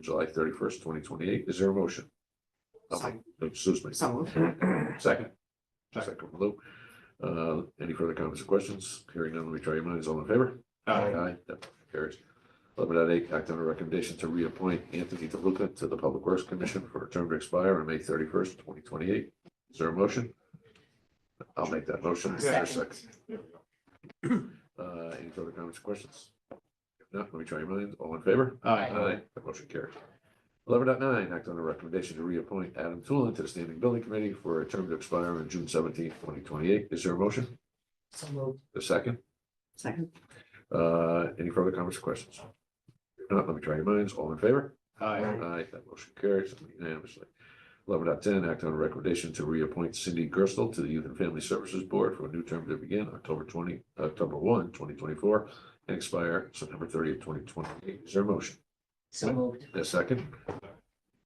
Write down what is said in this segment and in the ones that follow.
July thirty-first, twenty twenty-eight. Is there a motion? Okay, Excuse me. So Second. Second from Lou. Uh, any further comments or questions? Hearing none, let me try your minds. All in favor? Aye. That motion carries. Eleven dot eight, act on a recommendation to reappoint Anthony DeLuca to the Public Works Commission for a term to expire on May thirty-first, twenty twenty-eight. Is there a motion? I'll make that motion. Is there a Second. Uh, any further comments or questions? If not, let me try your minds. All in favor? Aye. That motion carries. Eleven dot nine, act on a recommendation to reappoint Adam Tulin to the Standing Building Committee for a term to expire on June seventeenth, twenty twenty-eight. Is there a motion? So moved. The second? Second. Uh, any further comments or questions? If not, let me try your minds. All in favor? Aye. Aye, that motion carries unanimously. Eleven dot ten, act on a recommendation to reappoint Cindy Gerstle to the Youth and Family Services Board for a new term to begin October twenty, October one, twenty twenty-four, and expire September thirtieth, twenty twenty-eight. Is there a motion? So moved. A second?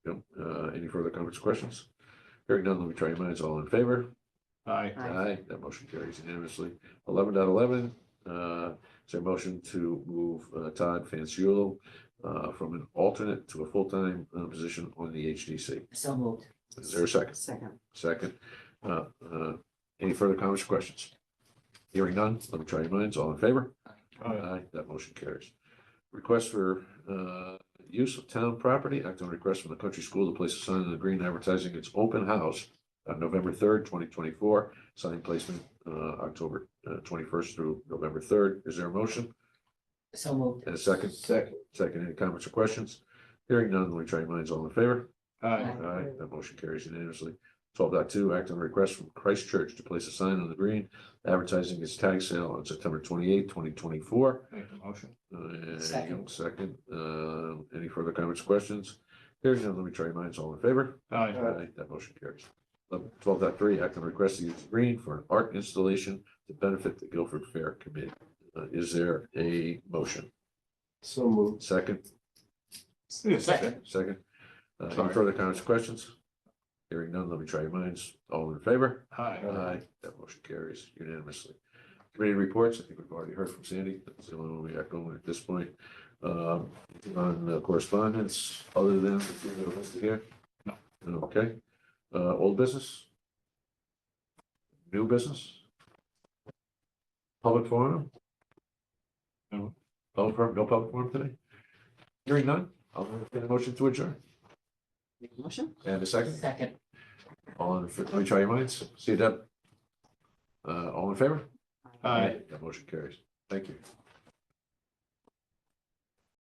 Yep, uh, any further comments, or questions? Hearing none, let me try your minds. All in favor? Aye. Aye. That motion carries unanimously. Eleven dot eleven, uh, is there a motion to move uh, Todd Fanciullo uh, from an alternate to a full-time uh, position on the HDC? So moved. Is there a second? Second. Second. Uh, uh, any further comments, or questions? Hearing none, let me try your minds. All in favor? Aye. Aye, that motion carries. Request for uh use of town property, act on request from the country school to place a sign in the green advertising its open house on November third, twenty twenty-four, sign placement uh October twenty-first through November third. Is there a motion So moved. and a second? Second. Second, any comments or questions? Hearing none, let me try your minds. All in favor? Aye. Aye, that motion carries unanimously. Twelve point two, act on request from Christ Church to place a sign on the green advertising its tag sale on September twenty-eighth, twenty twenty-four. Make the motion. Uh, Second. Second, uh, any further comments, questions? Hearing none, let me try your minds, all in favor? Aye. That motion carries. Twelve dot three, act on request to use green for an art installation to benefit the Guilford Fair Committee. Uh, is there a motion? So moved. Second, Second. second, uh, any Sorry. further comments, questions? Hearing none, let me try your minds, all in favor? Aye. Aye, that motion carries unanimously. Committee reports, I think we've already heard from Sandy, that's the only one we got going at this point. Um, on uh, correspondence, other than the three that are listed here? No. Okay, uh, old business? New business? Public forum? No. Public forum, no public forum today? Hearing none, I'll entertain a motion to adjourn, Motion? and a second, Second. all in, let me try your minds, see you Deb. Uh, all in favor? Aye. That motion carries. Thank you.